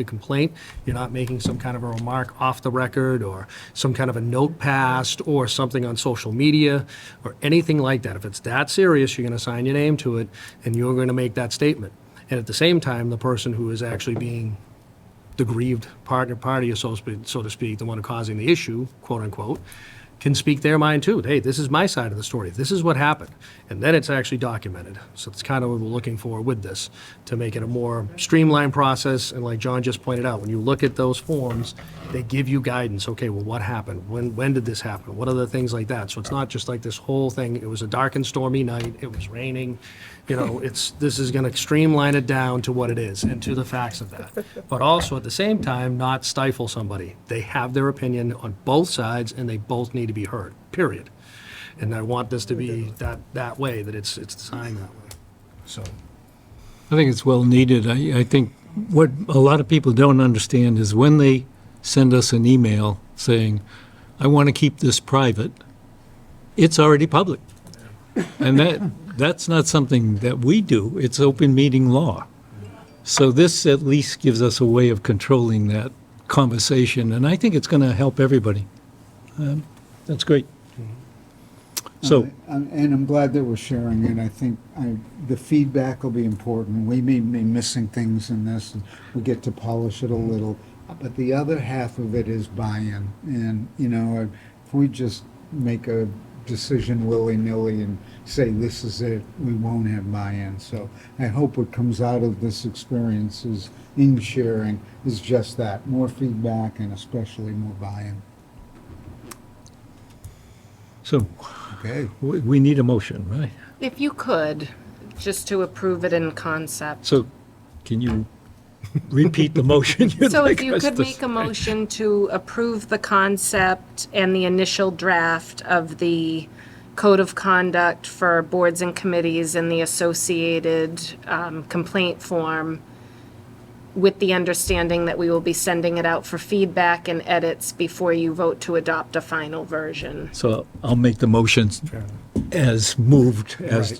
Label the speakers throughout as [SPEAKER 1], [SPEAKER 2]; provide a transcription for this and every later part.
[SPEAKER 1] a complaint, you're not making some kind of a remark off the record, or some kind of a note passed, or something on social media, or anything like that. If it's that serious, you're going to sign your name to it, and you're going to make that statement. And at the same time, the person who is actually being the grieved partner party, so to speak- so to speak, the one causing the issue, quote unquote, can speak their mind too. Hey, this is my side of the story. This is what happened. And then it's actually documented. So it's kind of what we're looking for with this, to make it a more streamlined process. And like John just pointed out, when you look at those forms, they give you guidance. Okay, well, what happened? When, when did this happen? What are the things like that? So it's not just like this whole thing, it was a dark and stormy night, it was raining. You know, it's, this is gonna streamline it down to what it is and to the facts of that. But also, at the same time, not stifle somebody. They have their opinion on both sides, and they both need to be heard, period. And I want this to be that, that way, that it's, it's designed that way, so.
[SPEAKER 2] I think it's well needed. I, I think what a lot of people don't understand is when they send us an email saying, I want to keep this private, it's already public. And that, that's not something that we do. It's open meeting law. So this at least gives us a way of controlling that conversation, and I think it's going to help everybody. Um, That's great. So,
[SPEAKER 3] Um, And I'm glad that we're sharing it. I think I, the feedback will be important. We may be missing things in this, and we get to polish it a little. But the other half of it is buy-in. And, you know, if we just make a decision willy-nilly and say, this is it, we won't have buy-in. So I hope what comes out of this experience is, in sharing, is just that, more feedback and especially more buy-in.
[SPEAKER 2] so
[SPEAKER 3] Okay.
[SPEAKER 2] we, we need a motion, right?
[SPEAKER 4] If you could, just to approve it in concept.
[SPEAKER 2] So, can you repeat the motion you'd
[SPEAKER 4] So if
[SPEAKER 2] like
[SPEAKER 4] you
[SPEAKER 2] us
[SPEAKER 4] could
[SPEAKER 2] to
[SPEAKER 4] make a
[SPEAKER 2] say?
[SPEAKER 4] motion to approve the concept and the initial draft of the code of conduct for boards and committees and the associated um, complaint form with the understanding that we will be sending it out for feedback and edits before you vote to adopt a final version.
[SPEAKER 2] So I'll make the motions as moved, as,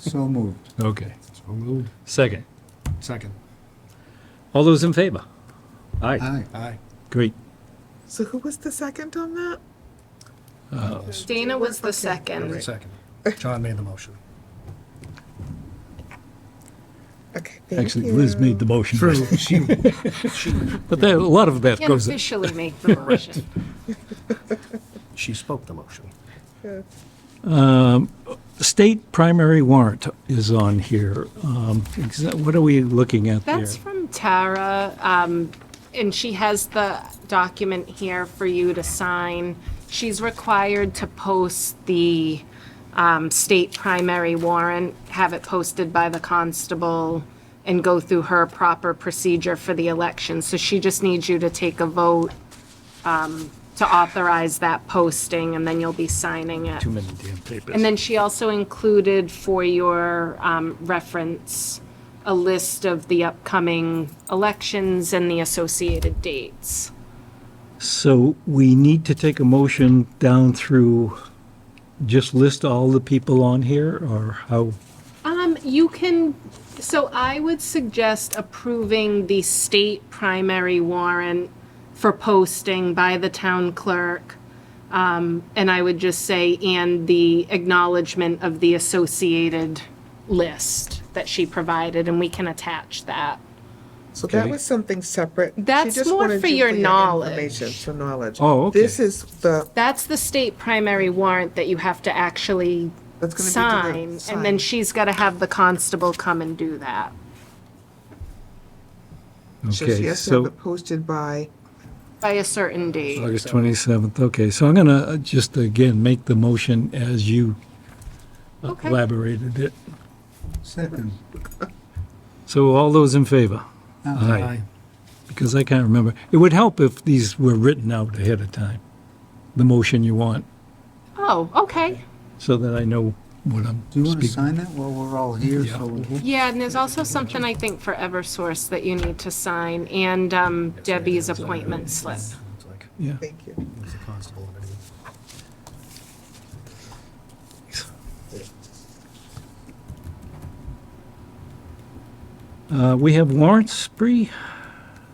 [SPEAKER 3] So moved.
[SPEAKER 2] okay.
[SPEAKER 1] So moved.
[SPEAKER 2] Second.
[SPEAKER 1] Second.
[SPEAKER 2] All those in favor?
[SPEAKER 5] Uh,
[SPEAKER 2] Aye,
[SPEAKER 3] Aye.
[SPEAKER 1] Aye.
[SPEAKER 2] great.
[SPEAKER 5] So who was the second on that?
[SPEAKER 4] Dana was the second.
[SPEAKER 1] Second. John made the motion.
[SPEAKER 5] Okay, thank
[SPEAKER 2] Actually,
[SPEAKER 5] you.
[SPEAKER 2] Liz made the motion. But there, a lot of that
[SPEAKER 4] Can't
[SPEAKER 2] goes,
[SPEAKER 4] officially make the motion.
[SPEAKER 1] She spoke the motion.
[SPEAKER 2] state primary warrant is on here. Um, exa- What are we looking at there?
[SPEAKER 4] That's from Tara, um, and she has the document here for you to sign. She's required to post the, um, state primary warrant, have it posted by the constable, and go through her proper procedure for the election. So she just needs you to take a vote, um, to authorize that posting, and then you'll be signing it.
[SPEAKER 2] Too many damn papers.
[SPEAKER 4] And then she also included for your um, reference, a list of the upcoming elections and the associated dates.
[SPEAKER 2] So we need to take a motion down through, just list all the people on here, or how?
[SPEAKER 4] Um, you can, so I would suggest approving the state primary warrant for posting by the town clerk. Um, and I would just say, and the acknowledgement of the associated list that she provided, and we can attach that.
[SPEAKER 5] so that
[SPEAKER 2] Okay.
[SPEAKER 5] was something separate. She
[SPEAKER 4] That's
[SPEAKER 5] just
[SPEAKER 4] more
[SPEAKER 5] wanted
[SPEAKER 4] for
[SPEAKER 5] you
[SPEAKER 4] your knowledge.
[SPEAKER 5] information, for knowledge.
[SPEAKER 2] Oh, okay.
[SPEAKER 5] This is the
[SPEAKER 4] That's the state primary warrant that you have to actually
[SPEAKER 5] That's gonna be to the
[SPEAKER 4] sign, and then
[SPEAKER 5] sign.
[SPEAKER 4] she's gotta have the constable come and do that.
[SPEAKER 5] so
[SPEAKER 2] Okay,
[SPEAKER 5] she has to
[SPEAKER 2] so-
[SPEAKER 5] have it posted by.
[SPEAKER 4] By a certain date.
[SPEAKER 2] August 27th, okay, so I'm going to just again make the motion as you
[SPEAKER 4] Okay.
[SPEAKER 2] elaborated it.
[SPEAKER 3] Second.
[SPEAKER 2] So all those in favor?
[SPEAKER 1] Aye.
[SPEAKER 2] Because I can't remember. It would help if these were written out ahead of time, the motion you want,
[SPEAKER 4] Oh, okay.
[SPEAKER 2] so that I know what I'm
[SPEAKER 3] Do you want to
[SPEAKER 2] speaking.
[SPEAKER 3] sign that while we're all here? so we-
[SPEAKER 4] Yeah, Mm-hmm. and there's also something I think for Eversource that you need to sign, and um, Debbie's appointment slip.
[SPEAKER 1] It's like,
[SPEAKER 2] Yeah,
[SPEAKER 5] Thank you.
[SPEAKER 1] it's the constable and everything.
[SPEAKER 2] Uh, we have warrants, Bree?